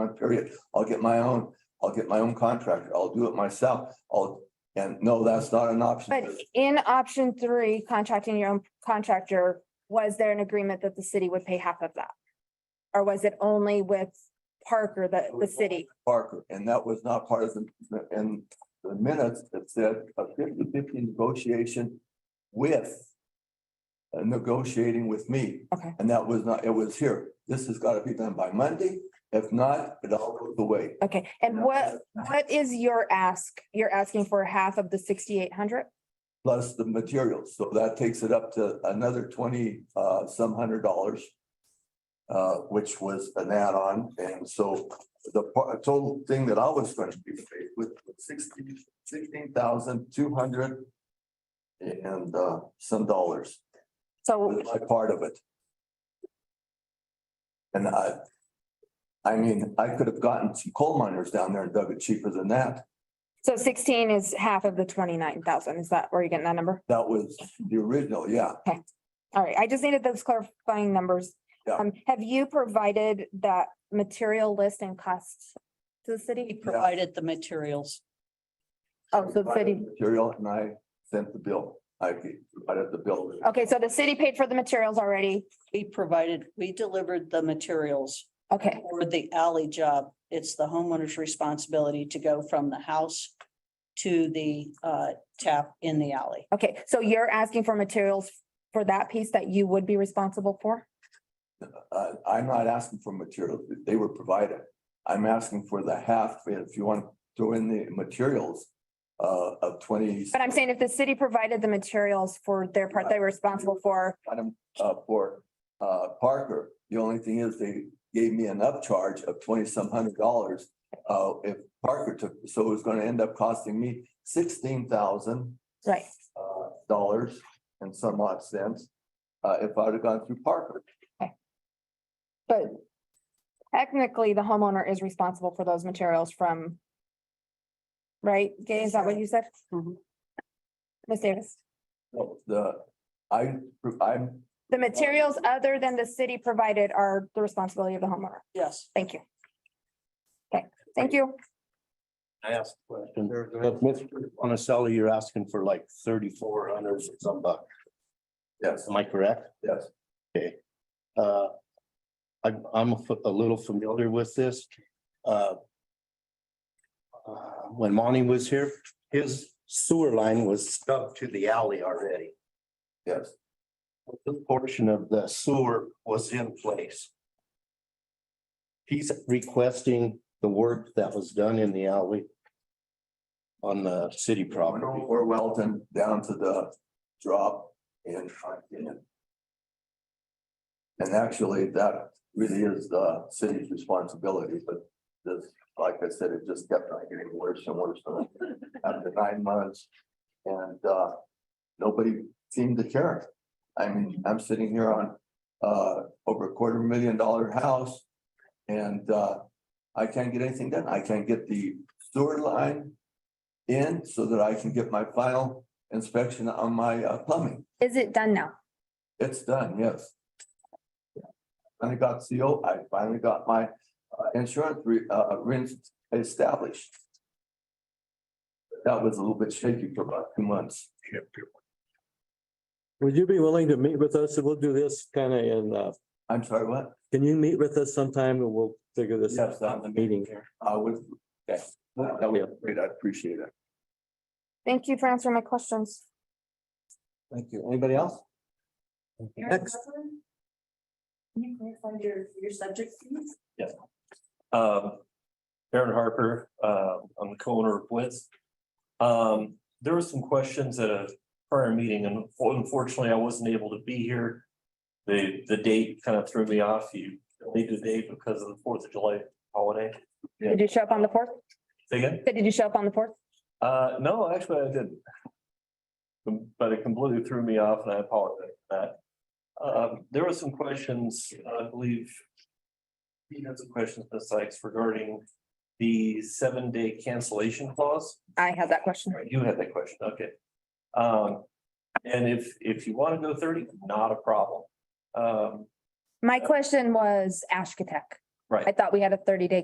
month period. I'll get my own, I'll get my own contractor. I'll do it myself. I'll, and no, that's not an option. But in option three, contracting your own contractor, was there an agreement that the city would pay half of that? Or was it only with Parker, the, the city? Parker, and that was not part of the, in the minutes, it said a 50-50 negotiation with uh, negotiating with me. Okay. And that was not, it was here. This has got to be done by Monday. If not, it all goes away. Okay, and what, what is your ask? You're asking for half of the sixty-eight hundred? Plus the materials. So that takes it up to another twenty, uh, some hundred dollars. Uh, which was an add-on. And so the par- total thing that I was going to be paid with was sixteen, sixteen thousand two hundred and, uh, some dollars So, was my part of it. And I, I mean, I could have gotten some coal miners down there and dug it cheaper than that. so sixteen is half of the twenty-nine thousand. Is that where you're getting that number? That was the original, yeah. All right, I just needed those clarifying numbers. Yeah. Um, have you provided that material list and costs to the He city? provided the materials. Oh, so the provided city, Material and I sent the bill. I provided the bill. okay, so the city paid for the materials already. He provided, we delivered the materials Okay. for the alley job. It's the homeowner's responsibility to go from the house to the uh, tap in the alley. Okay, so you're asking for materials for that piece that you would be responsible for? Uh, I'm not asking for materials. They were provided. I'm asking for the half, if you want, to throw in the materials uh, of twenty. But I'm saying if the city provided the materials for their part, they were responsible for, Adam, uh, for, uh, Parker. The only thing is they gave me an upcharge of twenty some hundred dollars. Uh, if Parker took, so it was gonna end up costing me sixteen thousand, right, uh, dollars and some odd cents. Uh, if I'd have gone through Parker, but technically the homeowner is responsible for those materials from, right? Gay, is that what you said? Mhm. Ms. Davis, So the, I, I'm, the materials other than the city provided are the responsibility of the homeowner. Yes. Thank you. Okay, thank you. I asked a question. But Mr. Monticelli, you're asking for like thirty-four hundred or some buck. yes, Am I correct? yes. Uh, I'm, I'm a fa- a little familiar with this. Uh, uh, When Monty was here, his sewer line was stubbed to the alley already. Yes, This portion of the sewer was in place. He's requesting the work that was done in the alley on the city went property. over Welton down to the drop and front end. And actually, that really is the city's responsibility, but this, like I said, it just kept on getting worse and worse and worse after nine months. And uh, nobody seemed to care. I mean, I'm sitting here on uh, over a quarter million dollar house. And uh, I can't get anything done. I can't get the sewer line in so that I can get my final inspection on my uh, plumbing. Is it done now? It's done, yes. And I got CO, I finally got my uh, insurance re, uh, rent established. That was a little bit shaky for about two months. Would you be willing to meet with us? We'll do this kind of in, uh, I'm sorry, what? can you meet with us sometime and we'll figure this out Yes, I'm- in the meeting here? I was, yes, that that was great. I appreciate it. Thank you for answering my questions. Thank you. Anybody else? Next, Um, Aaron Harper, uh, I'm the co-owner of Blitz. Um, there were some questions at a prior meeting and unfortunately I wasn't able to be here. The, the date kind of threw me off. You deleted the date because of the Fourth of July holiday. Did you show up on the fourth? Say Again, Did you show up on the fourth? uh, no, actually I didn't. But it completely threw me off and I apologize for that. Um, there were some questions, I believe. You had some questions, Ms. Sykes, regarding the seven day cancellation clause. I had that question. Right, You had that question, okay. Um, and if, if you want to go thirty, not a problem. Um, My question was Ashkatech. Right. I thought we had a thirty day